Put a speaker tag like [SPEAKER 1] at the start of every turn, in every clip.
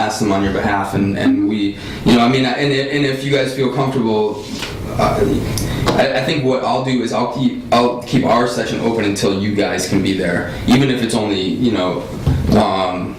[SPEAKER 1] ask them on your behalf, and, and we, you know, I mean, and, and if you guys feel comfortable, uh, I, I think what I'll do is I'll keep I'll keep our session open until you guys can be there, even if it's only you know. Um,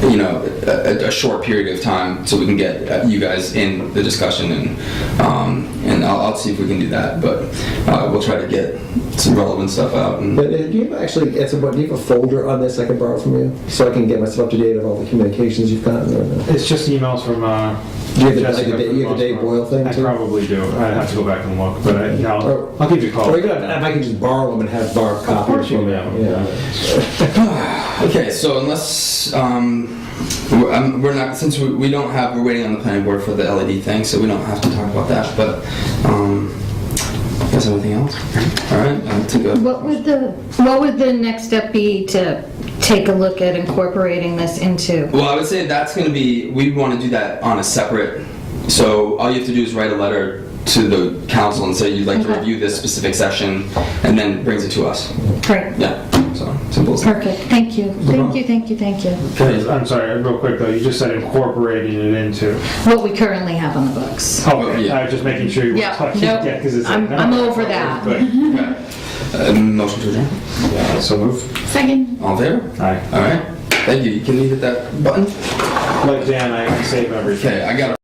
[SPEAKER 1] you know, a, a short period of time so we can get uh, you guys in the discussion and um, and I'll, I'll see if we can do that. But uh, we'll try to get some relevant stuff out. And,
[SPEAKER 2] But uh, do you have actually, as a, do you have a folder on this I can borrow from you? So I can get myself up to date of all the communications you've gotten? or no?
[SPEAKER 3] It's just emails from, uh.
[SPEAKER 2] Do you have the-
[SPEAKER 3] Jessica
[SPEAKER 2] like the-
[SPEAKER 3] from
[SPEAKER 2] you have the Dave
[SPEAKER 3] Rossborough.
[SPEAKER 2] Boyle thing,
[SPEAKER 3] I
[SPEAKER 2] too?
[SPEAKER 3] probably do, I'd have to go back and look, but I, yeah,
[SPEAKER 2] Or-
[SPEAKER 3] I'll, I'll give you a call.
[SPEAKER 2] Or you can, if I can just borrow them and have Barb copy
[SPEAKER 3] Of course you
[SPEAKER 2] them.
[SPEAKER 3] can.
[SPEAKER 2] Yeah.
[SPEAKER 1] Okay, so unless um, we're, um, we're not since we, we don't have we're waiting on the planning board for the LED thing, so we don't have to talk about that. But um, is there anything else? All right, um, I'll take a.
[SPEAKER 4] What would the, what would the next step be to take a look at incorporating this into?
[SPEAKER 1] Well, I would say that's going to be, we want to do that on a separate, so all you have to do is write a letter to the council and say you'd like to
[SPEAKER 4] Okay.
[SPEAKER 1] review this specific session, and then it brings it to us.
[SPEAKER 4] Great,
[SPEAKER 1] Yeah, so, simple as that.
[SPEAKER 4] perfect, thank you, thank you, thank you, thank you.
[SPEAKER 3] Because- I'm sorry, real quick though, you just said incorporating it into.
[SPEAKER 4] What we currently have on the books.
[SPEAKER 3] Okay,
[SPEAKER 2] Oh,
[SPEAKER 1] yeah.
[SPEAKER 3] I was just making sure you were
[SPEAKER 4] Yeah,
[SPEAKER 3] touching.
[SPEAKER 4] nope.
[SPEAKER 3] Yeah, 'cause it's like,
[SPEAKER 4] I'm-
[SPEAKER 3] no.
[SPEAKER 4] I'm over that.
[SPEAKER 3] But-
[SPEAKER 1] Uh, Motion to adjourn.
[SPEAKER 3] So move.
[SPEAKER 5] Second.
[SPEAKER 1] All in favor?
[SPEAKER 3] Aye.
[SPEAKER 1] All right, thank you, you can hit that button.
[SPEAKER 3] Like Dan, I can save everything.
[SPEAKER 1] Okay, I got it.